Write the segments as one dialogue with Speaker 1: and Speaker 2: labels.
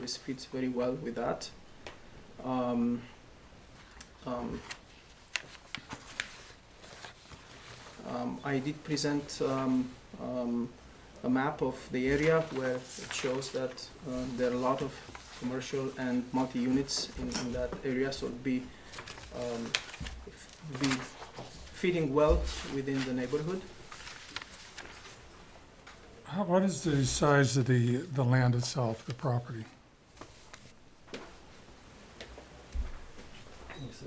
Speaker 1: this fits very well with that. Um, um, um, I did present um, um, a map of the area where it shows that uh, there are a lot of commercial and multi-units in, in that area, so it'd be, um, f- be fitting well within the neighborhood.
Speaker 2: How, what is the size of the, the land itself, the property?
Speaker 1: Let me see.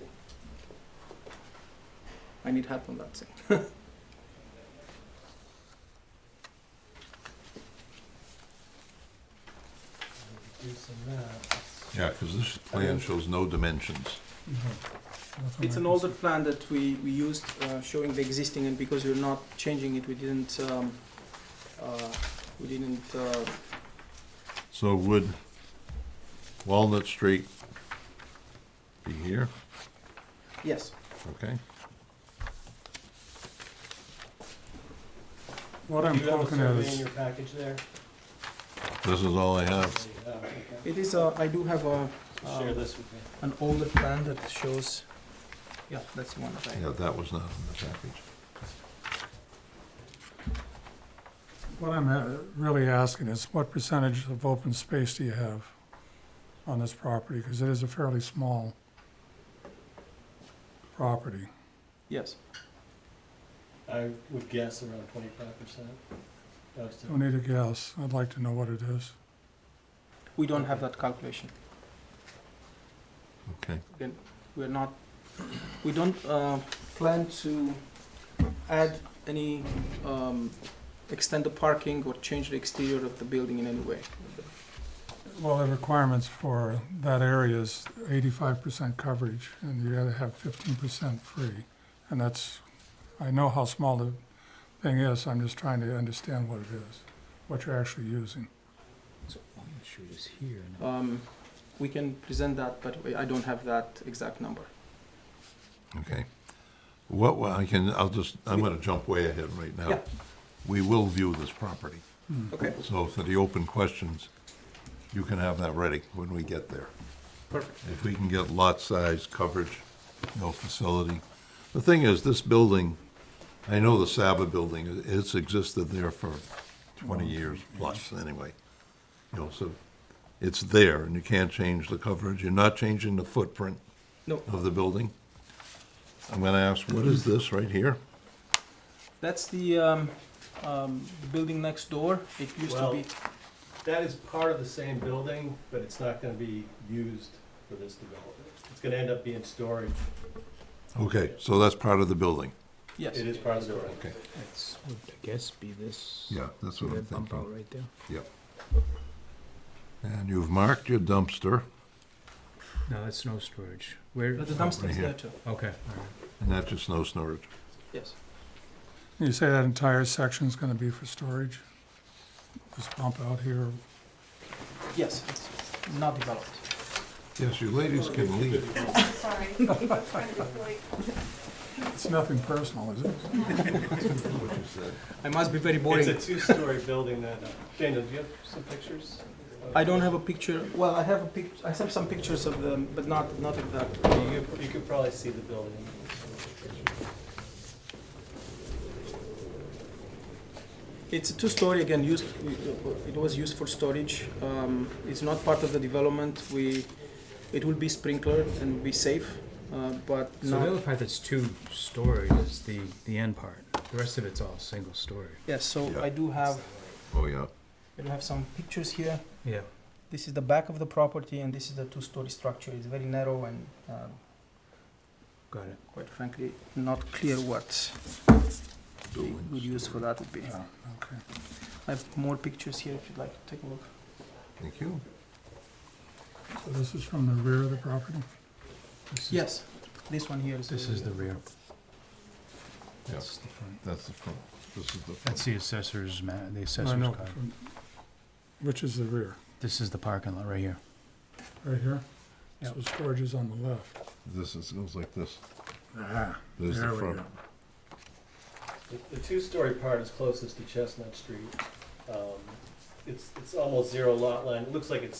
Speaker 1: I need help on that thing.
Speaker 3: Yeah, because this plan shows no dimensions.
Speaker 2: Nothing
Speaker 1: It's
Speaker 2: I
Speaker 1: an
Speaker 2: can
Speaker 1: older plan that we, we used uh, showing the existing, and because we're not changing it, we didn't, um, uh, we didn't, uh,
Speaker 3: So would Walnut Street be here?
Speaker 1: yes.
Speaker 3: Okay.
Speaker 2: see. What I'm poking at
Speaker 4: in
Speaker 2: is,
Speaker 4: your package there?
Speaker 3: This is all I have.
Speaker 4: Yeah, okay.
Speaker 1: It is, uh, I do have a,
Speaker 4: Share
Speaker 1: um,
Speaker 4: this with me.
Speaker 1: an older plan that shows, yeah, that's the one that I
Speaker 3: Yeah, that was not in the package.
Speaker 2: what I'm uh, really asking is what percentage of open space do you have on this property? Because it is a fairly small property.
Speaker 1: Yes,
Speaker 4: I would guess around twenty-five percent.
Speaker 1: Mm.
Speaker 2: Don't need a guess. I'd like to know what it is.
Speaker 1: we don't have that calculation.
Speaker 3: Okay.
Speaker 1: Again, we're not, we don't uh, plan to add any, um, extend the parking or change the exterior of the building in any way.
Speaker 2: Well, the requirements for that area is eighty-five percent coverage, and you gotta have fifteen percent free. And that's, I know how small the thing is, I'm just trying to understand what it is, what you're actually using.
Speaker 5: So Walnut Street is here now.
Speaker 1: Um, We can present that, but I don't have that exact number.
Speaker 3: Okay. What, wa- I can, I'll just, I'm gonna jump way ahead right now.
Speaker 1: Yeah.
Speaker 3: We will view this property.
Speaker 1: Okay,
Speaker 3: So for the open questions, you can have that ready when we get there.
Speaker 1: perfect.
Speaker 3: If we can get lot size, coverage, no facility. The thing is, this building, I know the Saba building, it's existed there for twenty years plus anyway. You know, so it's there and you can't change the coverage. You're not changing the footprint
Speaker 1: No,
Speaker 3: of the building. I'm gonna ask, what is this right here?
Speaker 1: that's the um, um, the building next door. It used to
Speaker 4: Well-
Speaker 1: be,
Speaker 4: That is part of the same building, but it's not gonna be used for this development. It's gonna end up being storage.
Speaker 3: Okay, so that's part of the building.
Speaker 1: yes,
Speaker 4: It is part of the building.
Speaker 3: Okay.
Speaker 5: That's would I guess be this.
Speaker 3: Yeah, that's
Speaker 5: See
Speaker 3: what I'm
Speaker 5: that bump out
Speaker 3: thinking.
Speaker 5: right there.
Speaker 3: Yep. And you've marked your dumpster,
Speaker 5: No, that's no storage. Where? oh,
Speaker 1: But the dumpster is
Speaker 3: here.
Speaker 1: there too.
Speaker 5: Okay. all right.
Speaker 3: and that's just no storage.
Speaker 1: Yes,
Speaker 2: You say that entire section's gonna be for storage? This bump out here,
Speaker 1: yes, it's not developed.
Speaker 3: Yes, you ladies can leave.
Speaker 6: Sorry. It's kind of like-
Speaker 2: it's nothing personal, is it?
Speaker 3: what you said.
Speaker 1: I must be very
Speaker 4: It's a
Speaker 1: boring.
Speaker 4: two-story building that, uh, Daniel, do you have some pictures?
Speaker 1: I don't have a picture, well, I have a pic, I have some pictures of them, but not, not of that.
Speaker 4: You could, you could probably see the building.
Speaker 1: It's a two-story, again, used, it was used for storage. Um, It's not part of the development. We, it will be sprinklered and be safe, uh, but
Speaker 5: So the
Speaker 1: not
Speaker 5: other part that's two story is the the end part. The rest of it's all single story.
Speaker 1: Yes, so
Speaker 3: Yeah.
Speaker 1: I do have,
Speaker 3: Oh, yeah.
Speaker 1: I do have some pictures here.
Speaker 5: Yeah.
Speaker 1: This is the back of the property and this is the two-story structure. It's very narrow and um,
Speaker 5: Got it.
Speaker 1: quite frankly, not clear what the good use for that would be.
Speaker 2: Yeah, okay.
Speaker 1: I have more pictures here if you'd like to take a look.
Speaker 3: Thank you.
Speaker 2: So this is from the rear of the property?
Speaker 5: This is,
Speaker 1: Yes, this one here is.
Speaker 5: This is the rear.
Speaker 3: Yeah.
Speaker 5: That's the front. Oh,
Speaker 3: That's the front. This is the front.
Speaker 5: That's the assessor's ma- the assessor's
Speaker 2: I know,
Speaker 5: card.
Speaker 2: from- Which is the rear,
Speaker 5: This is the parking lot right here.
Speaker 2: right here? So storage is on the left.
Speaker 3: This is, goes like this.
Speaker 2: Ah,
Speaker 3: There's the
Speaker 2: There we
Speaker 3: front.
Speaker 2: go.
Speaker 4: The- The two-story part is closest to Chestnut Street. Um, It's, it's almost zero lot line. It looks like it's